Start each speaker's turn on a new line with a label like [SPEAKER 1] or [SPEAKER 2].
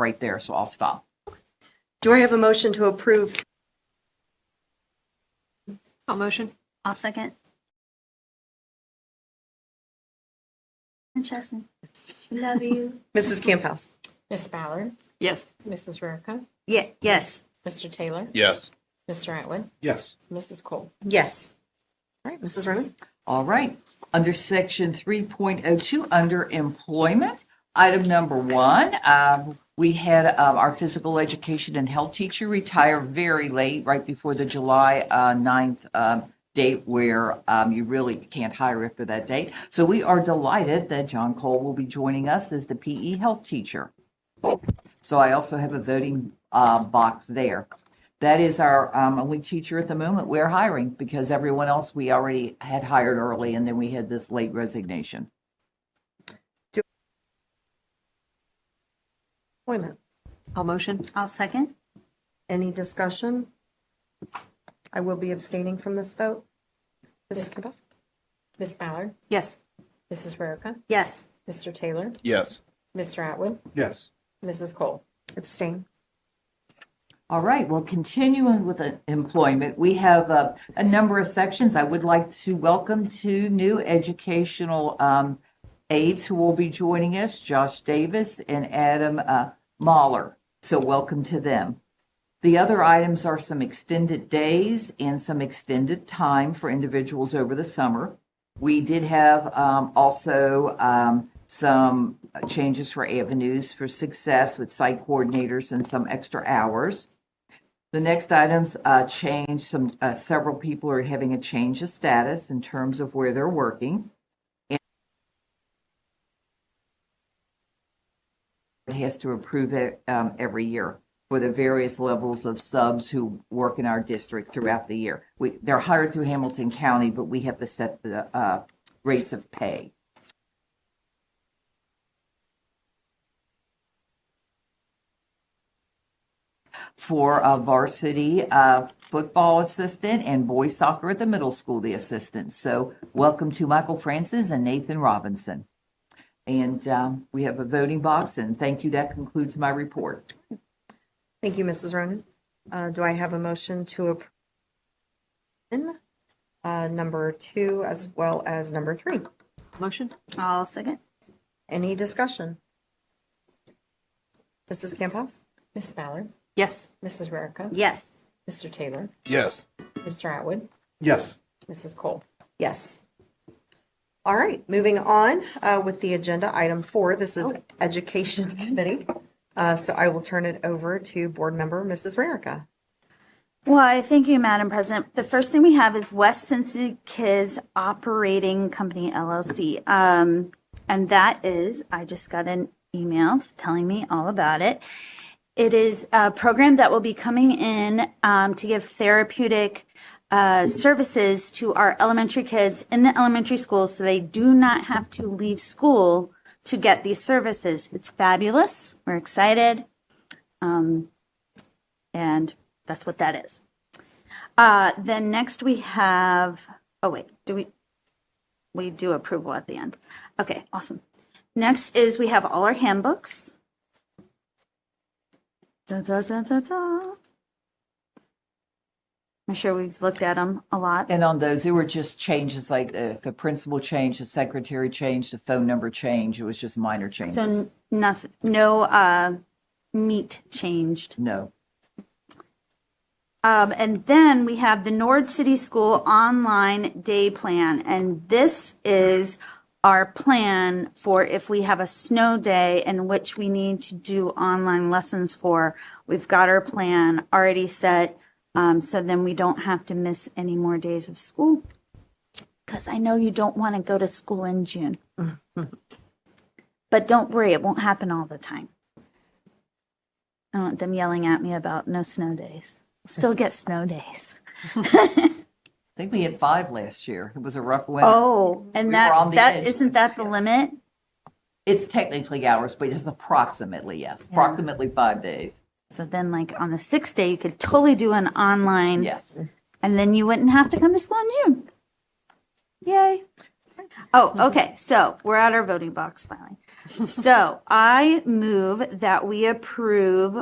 [SPEAKER 1] right there, so I'll stop.
[SPEAKER 2] Do I have a motion to approve?
[SPEAKER 3] I'll motion.
[SPEAKER 4] I'll second. And Chesson, love you.
[SPEAKER 2] Mrs. Camp House.
[SPEAKER 5] Miss Ballard,
[SPEAKER 3] Yes.
[SPEAKER 5] Mrs. Rarica,
[SPEAKER 4] Yeah, yes.
[SPEAKER 5] Mr. Taylor,
[SPEAKER 6] Yes.
[SPEAKER 5] Mr. Atwood,
[SPEAKER 6] Yes.
[SPEAKER 5] Mrs. Cole.
[SPEAKER 2] Yes. All right, Mrs. Roman.
[SPEAKER 1] All right. Under section 3.02, under employment, item number one, um, we had um, our physical education and health teacher retire very late, right before the July uh, 9th um, date where um, you really can't hire after that date. So we are delighted that John Cole will be joining us as the PE health teacher. So I also have a voting uh, box there. That is our um, only teacher at the moment we're hiring because everyone else we already had hired early and then we had this late resignation.
[SPEAKER 2] Appointment.
[SPEAKER 3] I'll motion.
[SPEAKER 4] I'll second.
[SPEAKER 2] Any discussion? I will be abstaining from this vote. Mrs. Camp House.
[SPEAKER 5] Miss Ballard,
[SPEAKER 3] Yes.
[SPEAKER 5] Mrs. Rarica,
[SPEAKER 4] Yes.
[SPEAKER 5] Mr. Taylor,
[SPEAKER 6] Yes.
[SPEAKER 5] Mr. Atwood,
[SPEAKER 6] Yes.
[SPEAKER 5] Mrs. Cole.
[SPEAKER 2] Abstain.
[SPEAKER 1] All right, well, continuing with uh, employment, we have uh, a number of sections. I would like to welcome two new educational um, aides who will be joining us, Josh Davis and Adam uh, Mahler. So welcome to them. The other items are some extended days and some extended time for individuals over the summer. We did have um, also um, some changes for avenues for success with site coordinators and some extra hours. The next items uh, change some uh, several people are having a change of status in terms of where they're working. And It has to approve it um, every year for the various levels of subs who work in our district throughout the year. We, they're hired through Hamilton County, but we have to set the uh, rates of pay. for a varsity uh, football assistant and boys soccer at the middle school, the assistant. So welcome to Michael Francis and Nathan Robinson. And um, we have a voting box, and thank you. That concludes my report.
[SPEAKER 2] Thank you, Mrs. Ronan. Uh, Do I have a motion to approve? uh, Number two as well as number three.
[SPEAKER 3] Motion.
[SPEAKER 4] I'll second.
[SPEAKER 2] Any discussion? Mrs. Camp House.
[SPEAKER 5] Miss Ballard,
[SPEAKER 3] Yes.
[SPEAKER 5] Mrs. Rarica,
[SPEAKER 4] Yes.
[SPEAKER 5] Mr. Taylor,
[SPEAKER 6] Yes.
[SPEAKER 5] Mr. Atwood,
[SPEAKER 6] Yes.
[SPEAKER 5] Mrs. Cole.
[SPEAKER 2] Yes. All right, moving on uh, with the agenda, item four, this is
[SPEAKER 4] Oh.
[SPEAKER 2] Education Committee. Uh, So I will turn it over to Board Member Mrs. Rarica.
[SPEAKER 4] Why, thank you, Madam President. The first thing we have is West Cincinnati Kids Operating Company LLC. Um, and that is, I just got an email telling me all about it. It is a program that will be coming in um, to give therapeutic uh, services to our elementary kids in the elementary school so they do not have to leave school to get these services. It's fabulous. We're excited. And that's what that is. Uh, then next we have, oh wait, do we, we do approval at the end. Okay, awesome. Next is we have all our handbooks. Da, da, da, da, da. I'm sure we've looked at them a lot.
[SPEAKER 1] And on those, there were just changes like uh, the principal change, the secretary change, the phone number change. It was just minor
[SPEAKER 4] So
[SPEAKER 1] changes.
[SPEAKER 4] n- nothing, no, uh, meat changed.
[SPEAKER 1] no.
[SPEAKER 4] Um, and then we have the Nord City School online day plan. And this is our plan for if we have a snow day in which we need to do online lessons for. We've got our plan already set. Um, so then we don't have to miss any more days of school. Cause I know you don't want to go to school in June. But don't worry, it won't happen all the time. I want them yelling at me about no snow days. Still get snow days.
[SPEAKER 1] I think we had five last year. It was a rough winter.
[SPEAKER 4] Oh, and
[SPEAKER 1] we were on
[SPEAKER 4] that,
[SPEAKER 1] the
[SPEAKER 4] that,
[SPEAKER 1] edge.
[SPEAKER 4] isn't that the limit?
[SPEAKER 1] It's technically hours, but it's approximately, yes, approximately five days.
[SPEAKER 4] So then like on the sixth day, you could totally do an online.
[SPEAKER 1] Yes.
[SPEAKER 4] And then you wouldn't have to come to school in June.
[SPEAKER 1] Mm-hmm.
[SPEAKER 4] Yay. Oh, okay. So we're at our voting box finally. So I move that we approve